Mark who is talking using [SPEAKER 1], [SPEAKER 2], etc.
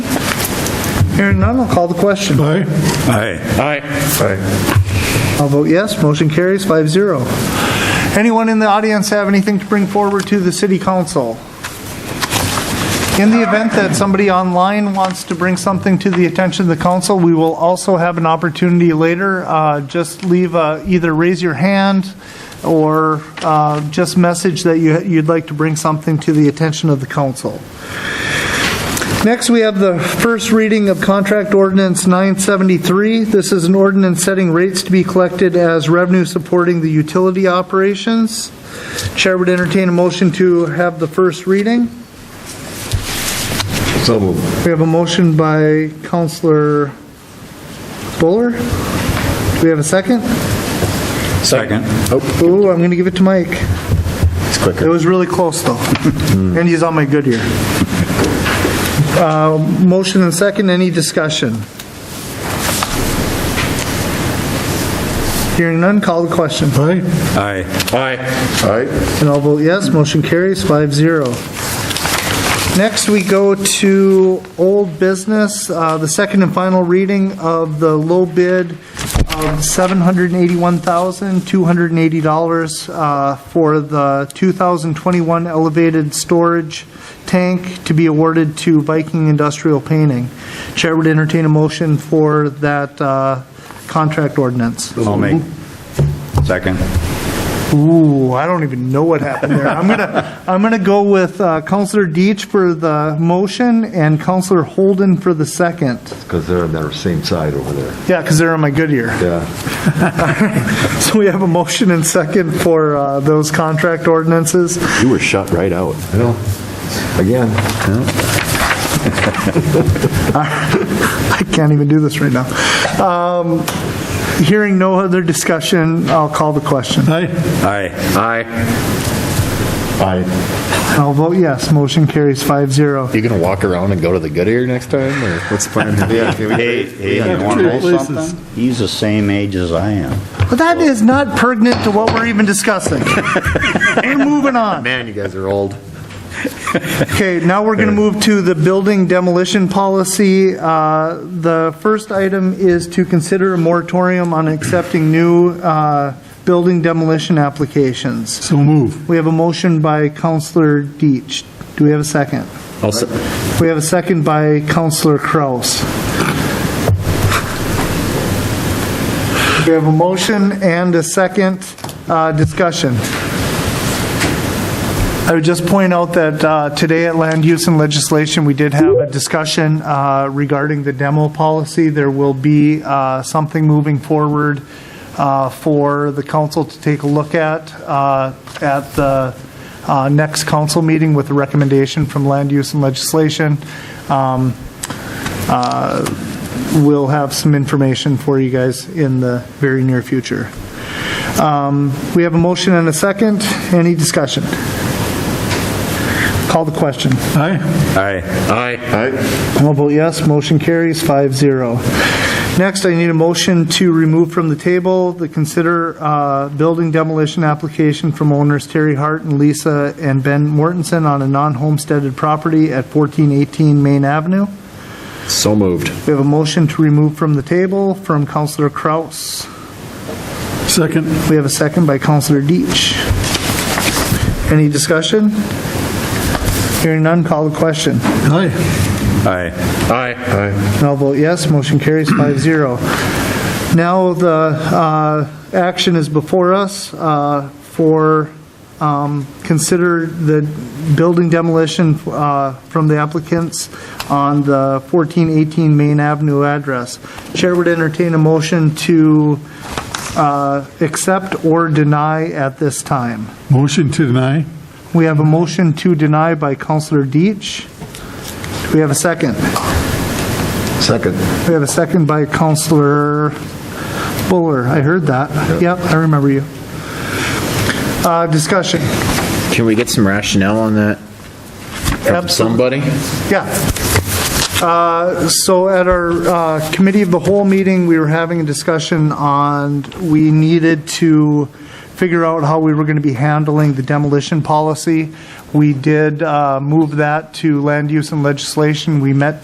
[SPEAKER 1] Hearing none, I'll call the question.
[SPEAKER 2] Aye.
[SPEAKER 3] Aye.
[SPEAKER 4] Aye.
[SPEAKER 1] I'll vote yes, motion carries 5-0. Anyone in the audience have anything to bring forward to the city council? In the event that somebody online wants to bring something to the attention of the council, we will also have an opportunity later. Uh, Just leave, uh, either raise your hand or uh, just message that you- you'd like to bring something to the attention of the council. Next, we have the first reading of Contract Ordinance 973. This is an ordinance setting rates to be collected as revenue supporting the utility operations. Chair would entertain a motion to have the first reading.
[SPEAKER 3] So moved.
[SPEAKER 1] We have a motion by Counselor Buller. Do we have a second?
[SPEAKER 3] Second. Oh,
[SPEAKER 1] Ooh, I'm going to give it to Mike.
[SPEAKER 3] it's
[SPEAKER 1] It
[SPEAKER 3] quicker. Hmm.
[SPEAKER 1] was really close, though. And he's on my good ear. Uh, Motion and second, any discussion? Hearing none, call the question.
[SPEAKER 2] Aye.
[SPEAKER 3] Aye.
[SPEAKER 4] Aye.
[SPEAKER 3] Aye.
[SPEAKER 1] And I'll vote yes, motion carries 5-0. Next, we go to old business, uh, the second and final reading of the low bid of $781,280 uh, for the 2021 elevated storage tank to be awarded to Viking Industrial Painting. Chair would entertain a motion for that uh, contract ordinance.
[SPEAKER 3] I'll make. Second.
[SPEAKER 1] Ooh, I don't even know what happened there. I'm gonna, I'm gonna go with uh, Counselor Deitch for the motion and Counselor Holden for the second.
[SPEAKER 5] Because they're on their same side over there.
[SPEAKER 1] Yeah, because they're on my good ear.
[SPEAKER 5] Yeah.
[SPEAKER 1] So we have a motion and second for uh, those contract ordinances.
[SPEAKER 5] You were shut right out. Well, again,
[SPEAKER 1] I can't even do this right now. Um, Hearing no other discussion, I'll call the question.
[SPEAKER 2] Aye.
[SPEAKER 3] Aye.
[SPEAKER 4] Aye.
[SPEAKER 5] I,
[SPEAKER 1] I'll vote yes, motion carries 5-0.
[SPEAKER 4] You gonna walk around and go to the good ear next time, or what's the plan?
[SPEAKER 5] yeah, can we-
[SPEAKER 3] Hey, hey, you want to know something? He's the same age as I am.
[SPEAKER 1] But that is not pertinent to what we're even discussing. We're moving on.
[SPEAKER 4] Man, you guys are old.
[SPEAKER 1] Okay, now we're going to move to the building demolition policy. Uh, The first item is to consider a moratorium on accepting new uh, building demolition applications.
[SPEAKER 2] So move.
[SPEAKER 1] We have a motion by Counselor Deitch. Do we have a second? We have a second by Counselor Kraus. We have a motion and a second uh, discussion. I would just point out that uh, today at Land Use and Legislation, we did have a discussion uh, regarding the demo policy. There will be uh, something moving forward uh, for the council to take a look at uh, at the uh, next council meeting with a recommendation from Land Use and Legislation. Um, uh, We'll have some information for you guys in the very near future. Um, We have a motion and a second. Any discussion? Call the question.
[SPEAKER 2] Aye.
[SPEAKER 3] Aye.
[SPEAKER 4] Aye.
[SPEAKER 1] I'll vote yes, motion carries 5-0. Next, I need a motion to remove from the table the consider uh, building demolition application from owners Terry Hart and Lisa and Ben Mortensen on a non-homesteaded property at 1418 Main Avenue.
[SPEAKER 4] So moved.
[SPEAKER 1] We have a motion to remove from the table from Counselor Kraus.
[SPEAKER 2] Second.
[SPEAKER 1] We have a second by Counselor Deitch. Any discussion? Hearing none, call the question.
[SPEAKER 2] Aye.
[SPEAKER 3] Aye.
[SPEAKER 4] Aye.
[SPEAKER 1] And I'll vote yes, motion carries 5-0. Now, the uh, action is before us uh, for, um, consider the building demolition uh, from the applicants on the 1418 Main Avenue address. Chair would entertain a motion to uh, accept or deny at this time.
[SPEAKER 2] Motion to deny.
[SPEAKER 1] We have a motion to deny by Counselor Deitch. Do we have a second?
[SPEAKER 5] second.
[SPEAKER 1] We have a second by Counselor Buller. I heard that. Yep, I remember you. Uh, Discussion.
[SPEAKER 4] Can we get some rationale on that? From
[SPEAKER 1] Absolutely.
[SPEAKER 4] somebody?
[SPEAKER 1] Yeah. Uh, So at our uh, Committee of the Whole meeting, we were having a discussion on, we needed to figure out how we were going to be handling the demolition policy. We did uh, move that to land use and legislation. We met